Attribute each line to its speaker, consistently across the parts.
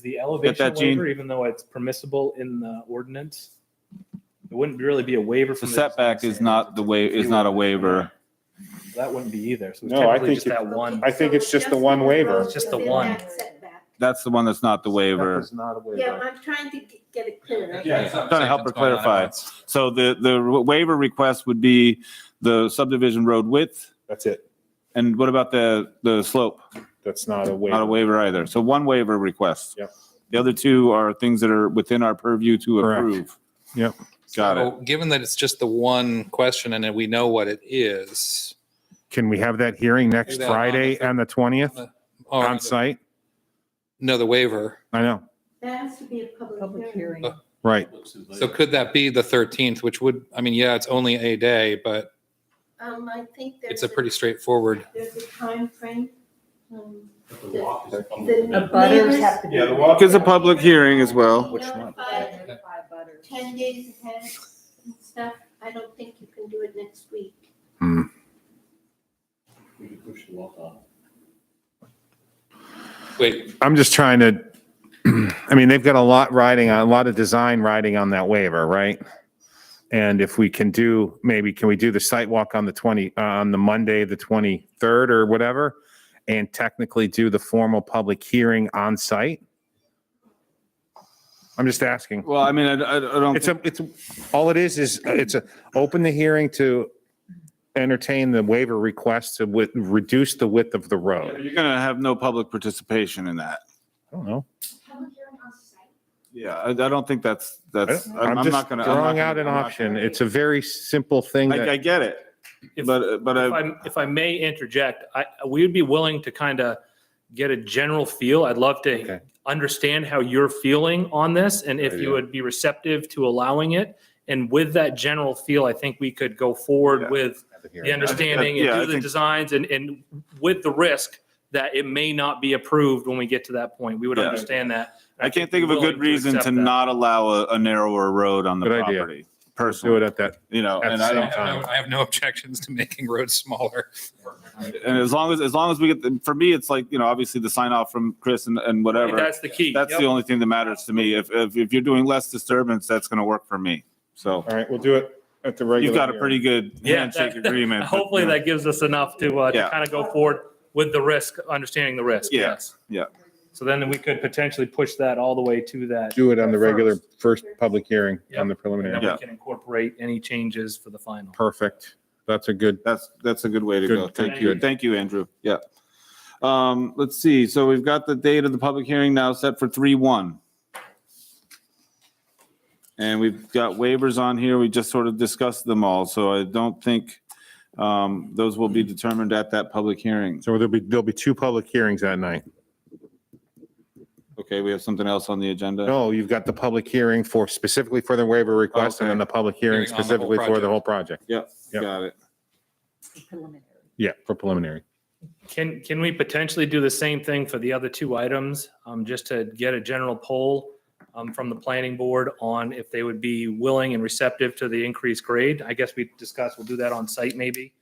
Speaker 1: the elevation
Speaker 2: that, Gene.
Speaker 1: waiver, even though it's permissible in the ordinance? It wouldn't really be a waiver
Speaker 2: The
Speaker 1: from. design
Speaker 2: setback is
Speaker 1: standards.
Speaker 2: not the way, is not a waiver.
Speaker 1: That wouldn't be either. So it's
Speaker 3: No, I
Speaker 1: technically
Speaker 3: think
Speaker 1: just
Speaker 3: it-
Speaker 1: that one.
Speaker 3: I think it's just the one waiver.
Speaker 1: It's just the
Speaker 4: Within
Speaker 1: one.
Speaker 4: that setback.
Speaker 2: That's the one that's not the
Speaker 3: That
Speaker 2: waiver.
Speaker 3: is not a
Speaker 4: Yeah,
Speaker 3: waiver.
Speaker 4: I'm trying to g- get it clear.
Speaker 2: Yeah, it's trying to help her clarify. So the, the waiver request would be the subdivision road width.
Speaker 3: That's it.
Speaker 2: And what about the, the slope?
Speaker 3: That's not
Speaker 2: Not
Speaker 3: a
Speaker 2: a
Speaker 3: waiver.
Speaker 2: waiver either. So one waiver request.
Speaker 3: Yep.
Speaker 2: The other two are things that are within our purview to
Speaker 3: Correct.
Speaker 2: approve.
Speaker 3: Yep.
Speaker 2: Got it.
Speaker 5: So, Given that it's just the one question and that we know what it is.
Speaker 3: Can we have that hearing next
Speaker 5: that Oh,
Speaker 3: Friday
Speaker 5: on the-
Speaker 3: on the 20th
Speaker 5: or
Speaker 3: on site?
Speaker 5: um, No, the waiver.
Speaker 3: I know,
Speaker 4: That has to be a public
Speaker 6: Public
Speaker 4: hearing.
Speaker 6: hearing.
Speaker 5: Uh,
Speaker 3: right.
Speaker 5: So could that be the 13th, which would, I mean, yeah, it's only a day, but
Speaker 4: Um, I think there's.
Speaker 5: it's a pretty straightforward.
Speaker 4: There's a timeframe. um,
Speaker 6: The
Speaker 4: The
Speaker 6: butters
Speaker 4: neighbors-
Speaker 6: have to be.
Speaker 3: Yeah, the walk
Speaker 2: is a public hearing as well.
Speaker 4: Which one?
Speaker 6: Identify butters.
Speaker 4: Ten days ahead and stuff. I don't think you can do it next week.
Speaker 5: Wait,
Speaker 3: I'm just trying to, I mean, they've got a lot riding on, a lot of design riding on that waiver, right? And if we can do, maybe can we do the site walk on the 20, uh, on the Monday, the 23rd or whatever? And technically do the formal public hearing on site? I'm just asking.
Speaker 2: Well, I mean, I, I I don't.
Speaker 3: It's
Speaker 2: think-
Speaker 3: a, it's, all it is, is uh, it's a, open the hearing to entertain the waiver request to with, reduce the width of the road.
Speaker 2: You're gonna have no public participation in that.
Speaker 3: I don't know.
Speaker 4: Public hearing on site.
Speaker 2: Yeah, I, I don't think that's, that's, I'm
Speaker 3: I'm
Speaker 2: I'm
Speaker 3: just
Speaker 2: not gonna. I'm not
Speaker 3: drawing
Speaker 2: gonna-
Speaker 3: out an
Speaker 2: I'm not
Speaker 3: option.
Speaker 2: gonna-
Speaker 3: It's a very simple thing that.
Speaker 2: I, I get it,
Speaker 7: If-
Speaker 2: but, but
Speaker 7: If
Speaker 2: I,
Speaker 7: I, if I may interject, I, we would be willing to kind of get a general feel. I'd love
Speaker 3: Okay.
Speaker 7: to understand how you're feeling on this and if you would be receptive to allowing it. And with that general feel, I think we could go
Speaker 2: Yeah.
Speaker 7: forward with the understanding and
Speaker 2: yeah, I
Speaker 7: do the
Speaker 2: think-
Speaker 7: designs and, and with the risk that it may not be approved when we get to that point. We would
Speaker 2: Yeah.
Speaker 7: understand that.
Speaker 2: I can't think of a
Speaker 7: Willing
Speaker 2: good reason to
Speaker 7: accept that.
Speaker 2: not allow a, a narrower road on the
Speaker 3: Good idea.
Speaker 2: property.
Speaker 3: Do it
Speaker 2: Personally,
Speaker 3: at that.
Speaker 2: you know,
Speaker 3: at
Speaker 2: and
Speaker 3: the
Speaker 2: I
Speaker 3: same
Speaker 5: I
Speaker 2: don't,
Speaker 5: have no- I have no objections to making roads smaller.
Speaker 2: and as long as, as long as we get, the- for me, it's like, you know, obviously the sign off from Chris and, and
Speaker 7: I
Speaker 2: whatever.
Speaker 7: think That's the key.
Speaker 2: That's
Speaker 7: Yep.
Speaker 2: the only thing that matters to me. If, if, if you're doing less disturbance, that's gonna work for me. So
Speaker 3: All right, we'll do it at the regular.
Speaker 2: you've got a
Speaker 3: hearing.
Speaker 2: pretty good
Speaker 7: Yeah,
Speaker 2: handshake
Speaker 7: that-
Speaker 2: agreement. but,
Speaker 7: Hopefully
Speaker 2: you know,
Speaker 7: that gives us enough to, uh,
Speaker 2: Yeah.
Speaker 7: to kind of go forward with the risk, understanding the risk.
Speaker 2: Yeah,
Speaker 7: Yes.
Speaker 2: yeah.
Speaker 7: So then we could potentially push that all the way to that.
Speaker 3: Do it on the regular
Speaker 7: First.
Speaker 3: first public hearing on
Speaker 7: Yep.
Speaker 3: the
Speaker 7: And
Speaker 3: preliminary.
Speaker 7: then
Speaker 2: Yeah.
Speaker 7: we can incorporate any changes for the final.
Speaker 3: Perfect. That's a good,
Speaker 2: That's, that's a good way to
Speaker 3: Good,
Speaker 2: go. Thank
Speaker 7: thank
Speaker 2: you.
Speaker 7: you.
Speaker 2: Thank you, Andrew. Yeah. Um, let's see. So we've got the date of the public hearing now set for three one. And we've got waivers on here. We just sort of discussed them all. So I don't think, um, those will be determined at that public hearing.
Speaker 3: so there'll be, there'll be two public hearings that night.
Speaker 2: Okay, we have something else on the agenda?
Speaker 3: No, Oh, you've got the public hearing for specifically for the waiver request and then the public hearing
Speaker 5: Hearing on the whole
Speaker 3: specifically for the
Speaker 5: project.
Speaker 3: whole project.
Speaker 2: Yep,
Speaker 3: Yep.
Speaker 2: got it.
Speaker 6: Preliminary.
Speaker 3: Yeah, for preliminary.
Speaker 7: Can, can we potentially do the same thing for the other two items? Um, just to get a general poll, um, from the planning board on if they would be willing and receptive to the increased grade. I guess we discussed, we'll do that on site maybe.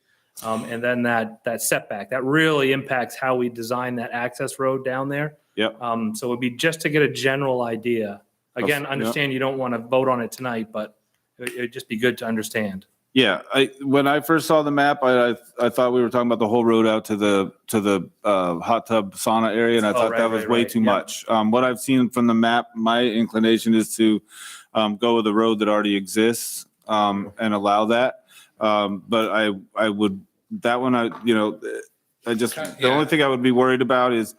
Speaker 7: Um, and then that, that setback, that really impacts how we design that access road down there.
Speaker 2: Yep.
Speaker 7: Um, so it'd be just to get a general idea. Again,
Speaker 2: yeah.
Speaker 7: understand you don't want to vote on it tonight, but it- it'd just be good to understand.
Speaker 2: Yeah, I, when I first saw the map, I, I, I thought we were talking about the whole road out to the, to the, uh, hot tub sauna area, and I
Speaker 7: Oh,
Speaker 2: thought
Speaker 7: right,
Speaker 2: that was
Speaker 7: right,
Speaker 2: way
Speaker 7: right,
Speaker 2: too
Speaker 7: yeah.
Speaker 2: much. Um, what I've seen from the map, my inclination is to, um, go with the road that already exists, um, and allow that. Um, but I, I would, that one, I, you know, I just, the
Speaker 5: Yeah.
Speaker 2: only thing I would be worried about is,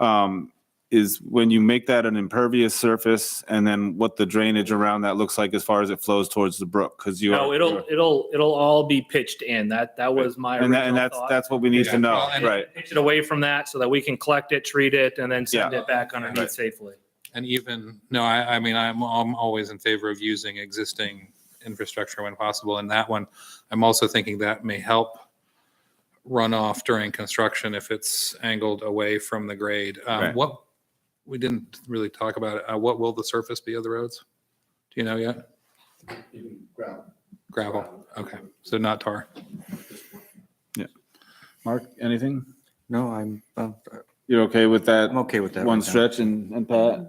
Speaker 2: um, is when you make that an impervious surface, and then what the drainage around that looks like as far as it flows towards the brook, because you.
Speaker 7: No,
Speaker 2: are-
Speaker 7: it'll, it'll, it'll all be pitched in. That, that was my
Speaker 2: And that, and
Speaker 7: original
Speaker 2: that's,
Speaker 7: thought.
Speaker 2: that's what we need
Speaker 5: Yeah.
Speaker 2: to know,
Speaker 5: Well, and-
Speaker 2: right?
Speaker 7: Pitch it away from that so that we can collect it, treat it, and then send
Speaker 5: Yeah.
Speaker 7: it back underneath
Speaker 2: Right.
Speaker 7: safely.
Speaker 5: And even, no, I, I mean, I'm, I'm always in favor of using existing infrastructure when possible. And that one, I'm also thinking that may help runoff during construction if it's angled away from the grade. Um,
Speaker 2: Right.
Speaker 5: What, we didn't really talk about it. Uh, What will the surface be of the roads? Do you know yet? Gravel. Okay. So not tar.
Speaker 2: Mark, anything?
Speaker 8: No, I'm, uh,
Speaker 2: You're okay with that
Speaker 8: I'm okay with that.
Speaker 2: one
Speaker 8: right now.
Speaker 2: stretch and, and Pat?